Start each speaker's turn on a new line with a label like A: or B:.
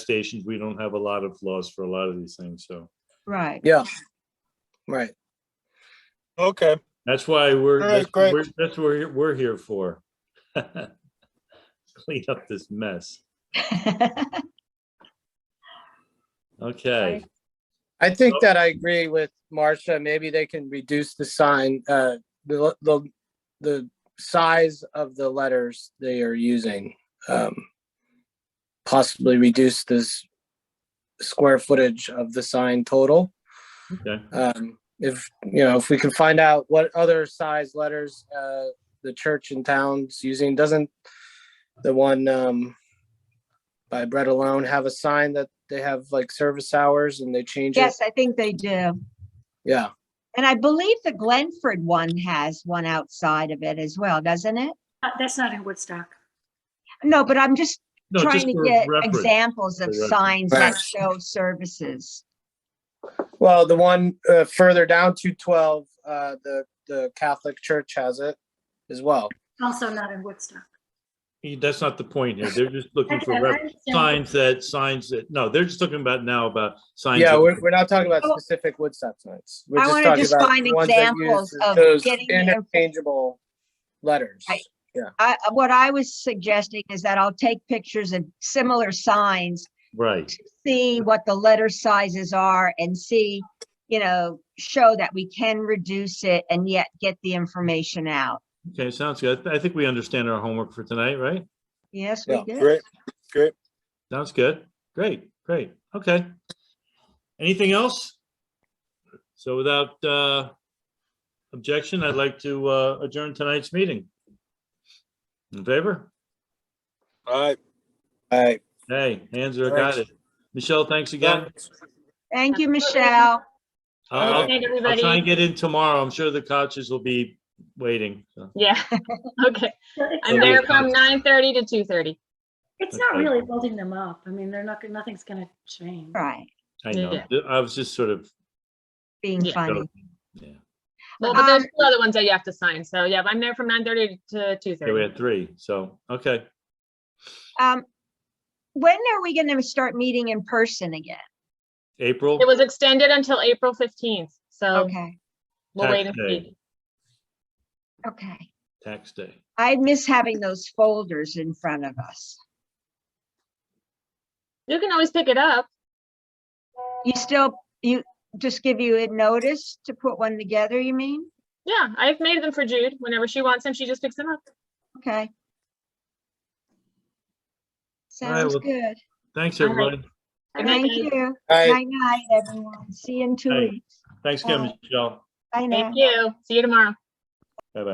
A: stations, we don't have a lot of laws for a lot of these things, so.
B: Right.
C: Yeah, right.
D: Okay,
A: That's why we're,
D: All right,
A: that's
D: great.
A: we're- that's what we're- we're here for. Clean up this mess. Okay,
C: I think that I agree with Marcia. Maybe they can reduce the sign, uh, the, the, the size of the letters they are using. Um Possibly reduce this square footage of the sign total.
A: okay,
C: Um, if, you know, if we can find out what other size letters, uh, the church in town's using, doesn't the one, um, by Bread Alone have a sign that they have like service hours and they change it?
B: Yes, I think they do.
C: Yeah,
B: And I believe the Glenford one has one outside of it as well, doesn't it?
E: Uh, That's not in Woodstock.
B: No, but I'm just
A: no,
B: trying
A: just
B: to
A: for
B: get
A: reference.
B: examples of
A: For reference.
B: signs that
C: Right.
B: show services.
C: well, the one, uh, further down to twelve, uh, the, the Catholic Church has it as well.
E: Also not in Woodstock.
A: That's not the point here. They're just looking for
E: Okay, I
A: reference.
E: understand.
A: signs that, signs that, no, they're just talking about now about signs.
C: Yeah,
A: that-
C: we're, we're not talking about
B: Oh.
C: specific Woodstock signs. We're
B: I
C: just
B: wanna
C: talking
B: just
C: about
B: find
C: the ones that
B: examples
C: use
B: of
C: those
B: getting the info-
C: interchangeable letters.
B: Right. I, what I was suggesting is that I'll take pictures of similar signs,
A: Right,
B: see what the letter sizes are and see, you know, show that we can reduce it and yet get the information out.
A: okay, sounds good. I think we understand our homework for tonight, right?
B: Yes, we
C: Yeah,
B: did.
D: great, great.
A: Sounds good. Great, great. Okay. Anything else? So without uh objection, I'd like to uh adjourn tonight's meeting. In favor?
D: All right.
C: All right.
A: Hey, hands are got it.
D: Thanks.
A: Michelle, thanks again.
B: Thank you, Michelle.
A: I'll-
F: Good night,
A: I'll try and
F: everybody.
A: get in tomorrow. I'm sure the couches will be waiting. so.
F: Yeah, okay. I'm
A: Okay.
F: there from nine thirty to two thirty.
E: It's not
A: Okay.
E: really holding them up. I mean, they're not, nothing's gonna change.
B: Right,
A: I know. I was just sort of,
B: being
F: Yeah.
B: funny.
A: yeah,
F: Well, but there's
B: Um,
F: still other ones that you have to sign. So yeah, I'm there from nine thirty to two
A: Yeah, we
F: thirty.
A: had three. So, okay.
B: Um, when are we gonna start meeting in person again?
A: April,
F: It was extended until April fifteenth, so
B: Okay,
F: we'll wait and
A: Tax day.
F: see.
B: okay.
A: tax day.
B: I miss having those folders in front of us.
F: You can always pick it up.
B: You still, you, just give you a notice to put one together, you mean?
F: Yeah, I've made them for Jude. Whenever she wants them, she just picks them up.
B: Okay.
A: All right,
B: Sounds
A: well,
B: good.
A: Thanks,
F: All right.
A: everybody.
F: Good night,
B: Thank
F: guys.
B: you.
C: All right.
B: Night night, everyone. See you in two
A: Bye.
B: weeks.
A: Thanks again,
B: Bye.
A: Michelle.
B: Bye now.
F: Thank you. See you tomorrow.